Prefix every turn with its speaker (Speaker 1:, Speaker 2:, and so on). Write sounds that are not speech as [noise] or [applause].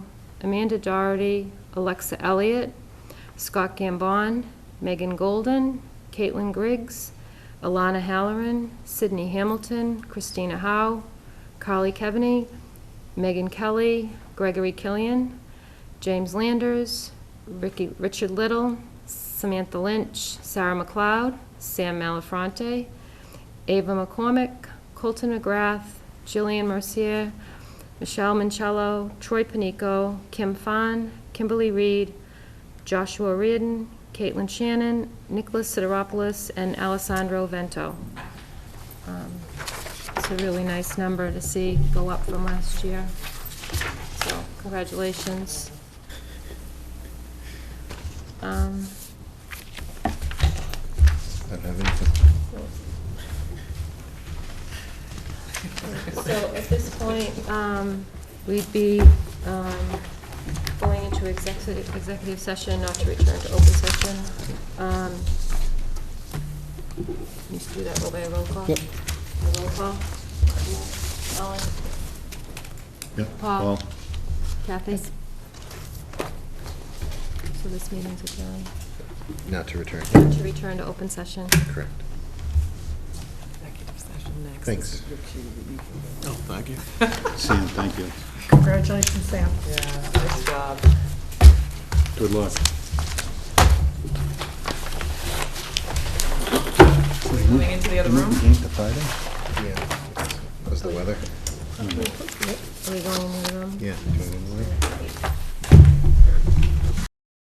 Speaker 1: Amanda Doherty, Alexa Elliott, Scott Gambon, Megan Golden, Caitlin Griggs, Alana Halloran, Sydney Hamilton, Christina Howe, Carly Kevany, Megan Kelly, Gregory Killian, James Landers, Ricky, Richard Little, Samantha Lynch, Sarah McLeod, Sam Malafronte, Ava McCormick, Colton McGrath, Jillian Mercier, Michelle Mancello, Troy Panico, Kim Phan, Kimberly Reed, Joshua Reardon, Caitlin Shannon, Nicholas Sideropoulos, and Alessandro Vento. Um, It's a really nice number to see go up from last year. So, congratulations. Um,
Speaker 2: Don't have anything.
Speaker 1: So at this point, um, we'd be um, going into executive executive session, not to return to open session. Um, You should do that roll by roll call.
Speaker 2: Yep.
Speaker 1: A Roll call. Ellen?
Speaker 2: Yeah,
Speaker 1: Paul?
Speaker 2: Paul.
Speaker 1: Kathy? So this meeting's adjourned.
Speaker 2: Not to return.
Speaker 1: To return to open session.
Speaker 2: Correct.
Speaker 3: executive session next.
Speaker 2: Thanks.
Speaker 3: This is your cue that you can-
Speaker 4: Oh, thank you.
Speaker 3: [laughs]
Speaker 2: Sam, thank you.
Speaker 5: Congratulations, Sam.
Speaker 3: Yeah, nice job.
Speaker 2: Good luck.
Speaker 3: Moving into the other room?
Speaker 2: The Friday? Yeah. Was the weather?
Speaker 1: Are we going in the room?
Speaker 2: Yeah. Do you want to go in the room?
Speaker 1: Yeah.